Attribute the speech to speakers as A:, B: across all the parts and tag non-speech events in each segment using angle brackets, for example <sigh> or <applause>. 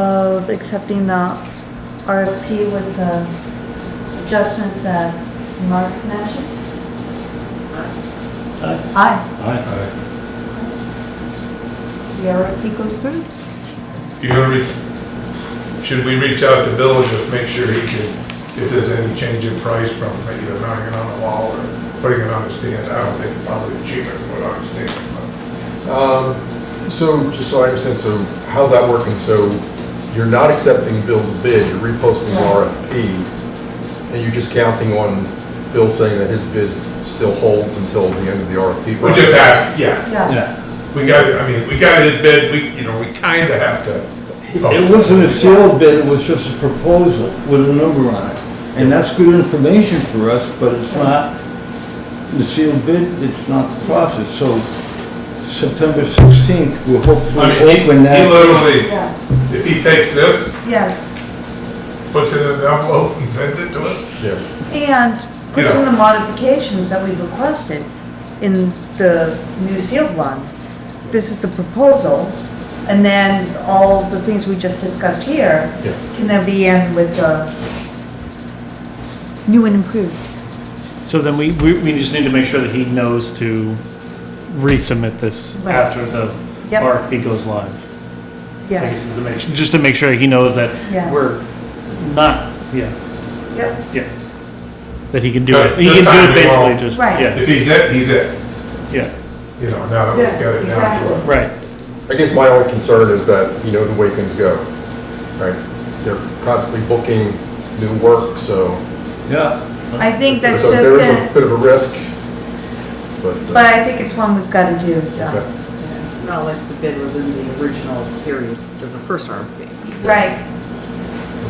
A: of accepting the RFP with the adjustments that Mark mentioned?
B: Aye.
A: Aye,
C: Uh,
B: Aye.
A: the RFP goes through?
C: You're gonna re, should we reach out to Bill and just make sure he can, if there's any change in price from either mounting it on the wall or putting it on the stands? I don't think it's probably cheaper to put on a stand,
D: Um, So, just so I understand, so how's that working? So you're not accepting Bill's bid, you're reposting the RFP, and you're just counting on Bill saying that his bid still holds until the end of the RFP?
C: but we just asked, yeah,
A: Yeah.
B: Yeah.
C: we got, I mean, we got his bid, we, you know, we kinda have to. post
B: It wasn't a sealed bid, it was just a proposal with a number on it. And that's good information for us, but it's not, the sealed bid, it's not the process. So September 16th, we'll
C: I
B: hopefully
C: mean, he, he
B: open that.
C: literally,
A: Yes,
C: if he takes this,
A: yes,
C: puts it in an envelope and sends it to us,
D: Yeah.
A: and puts in the modifications that we've requested in the new sealed one. This is the proposal, and then all the things we just discussed here
D: Yeah.
A: can then be in with the new and improved.
E: So then we, we, we just need to make sure that he knows to resubmit this
A: Right.
E: after the
A: Yep.
E: RFP goes live. I guess
A: Yes,
E: is to make, just to make sure he knows that
A: Yes.
E: we're not, yeah,
A: yep,
E: yeah. That he can do
C: But
E: it, he
C: this
E: can
C: time we
E: do it basically
C: won't.
E: just,
A: Right.
E: yeah,
C: if he's it, he's it,
E: yeah,
C: you know, now that we've got it down
A: Yeah,
C: to a.
E: right.
D: I guess my only concern is that, you know, the way things go, right? They're constantly booking new work, so.
B: Yeah.
A: I think that's
D: so
A: just
D: There is
A: gonna.
D: a bit of a risk, but,
A: But
D: uh,
A: I think it's one we've got to do, so,
D: Okay.
F: It's not like the bid was in the original period of the first RFP.
A: right.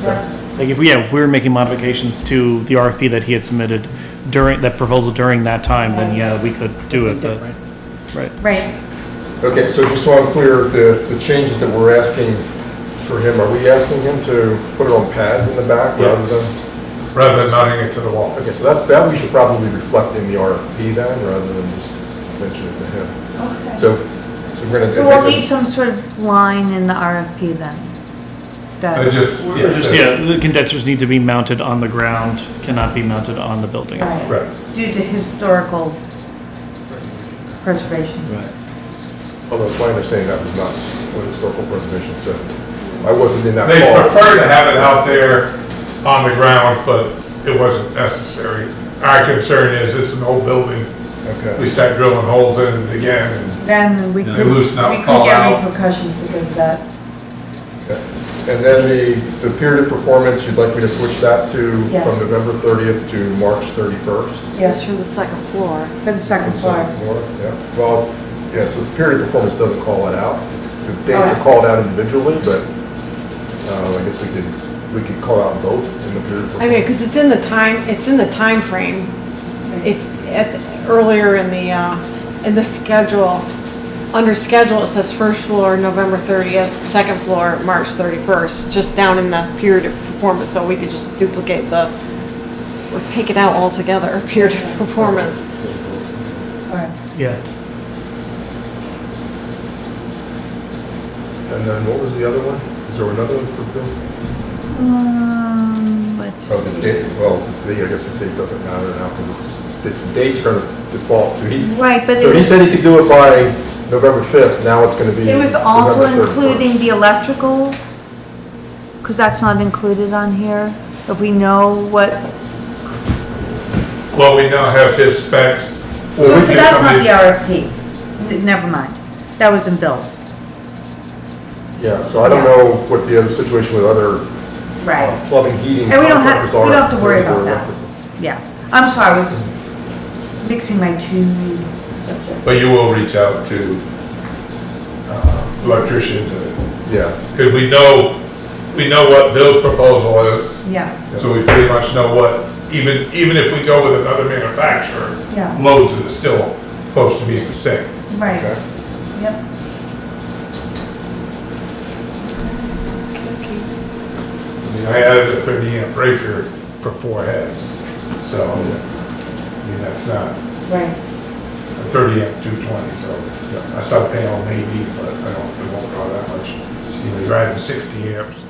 A: Yeah.
E: Like if we, yeah, if we were making modifications to the RFP that he had submitted during, that proposal during that time, then yeah, we could do it, but, right.
A: Right,
D: Okay, so just so I'm clear, the, the changes that we're asking for him, are we asking him to put it on pads in the back
C: Yeah.
D: rather than?
C: rather than mounting it to the wall.
D: Okay, so that's, that we should probably reflect in the RFP then, rather than just mention it to him.
A: okay.
D: So, so we're gonna.
A: So we'll
D: make a-
A: need some sort of line in the RFP then.
C: I
A: That,
C: just, yeah,
E: Just,
C: so-
E: yeah, the condensers need to be mounted on the ground, cannot be mounted on the building itself.
A: right,
C: right.
A: due to historical preservation.
B: Right.
D: Although it's my understanding that was not what historical preservation said. I wasn't in that
C: They
D: call.
C: prefer to have it out there on the ground, but it wasn't necessary. Our concern is it's an old building. We
D: Okay,
C: start drilling holes in it again,
A: Then we
C: Yeah,
A: could, we
C: loose nut
A: could
C: fall
A: get
C: out.
A: repercussions because of that,
D: and then the, the period of performance, you'd like me to switch that to
A: Yes.
D: from November 30th to March 31st?
A: yes,
F: from the second floor.
A: for the second
D: Second
A: floor.
D: floor, yeah. Well, yeah, so the period of performance doesn't call that out. It's, the dates
A: Alright.
D: are called out individually, but, uh, I guess we could, we could call out both in the period of
G: I mean,
D: performance.
G: because it's in the time, it's in the time frame. If, at, earlier in the, uh, in the schedule, under schedule, it says first floor, November thirtieth, second floor, March thirty-first, just down in the period of performance, so we could just duplicate the, or take it out altogether, <laughs> period of performance.
A: Alright.
E: Yeah.
D: And then what was the other one? Is there another one for Bill?
A: Um, let's
D: Oh, the date,
A: see.
D: well, the, I guess the date doesn't matter now because it's, it's, dates are gonna default to. he-
A: Right, but
D: So
A: it
D: he
A: was,
D: said he could do it by November 5th, now it's gonna be.
A: it was also
D: November 31st.
A: including the electrical, because that's not included on here. If we know what,
C: and, well, we now have his specs.
A: so
C: We get
A: that's not
C: somebody-
A: the RFP. N- Never mind, that was in Bill's,
D: Yeah, so I don't
A: Yeah.
D: know what the other situation with other
A: right.
C: Oh.
D: uh, plumbing, heating.
A: And we don't have,
D: contractors
A: we
D: are
A: don't have to worry
D: those who are
A: about that.
D: electrical.
A: Yeah, I'm sorry, I was mixing my two subjects.
C: But you will reach out to uh, electrician, to-
D: Yeah,
C: because we know, we know what Bill's proposal is.
A: Yeah,
C: So we pretty much know what, even, even if we go with another manufacturer,
A: yeah,
C: loads are still supposed to be the same.
A: right,
D: okay.
A: yep.
C: I mean, I added a thirty amp breaker for four heads, so, I mean, that's not
A: Right.
C: a thirty amp two twenty, so a sub panel maybe, but I don't, it won't draw that much. driving 60 amps.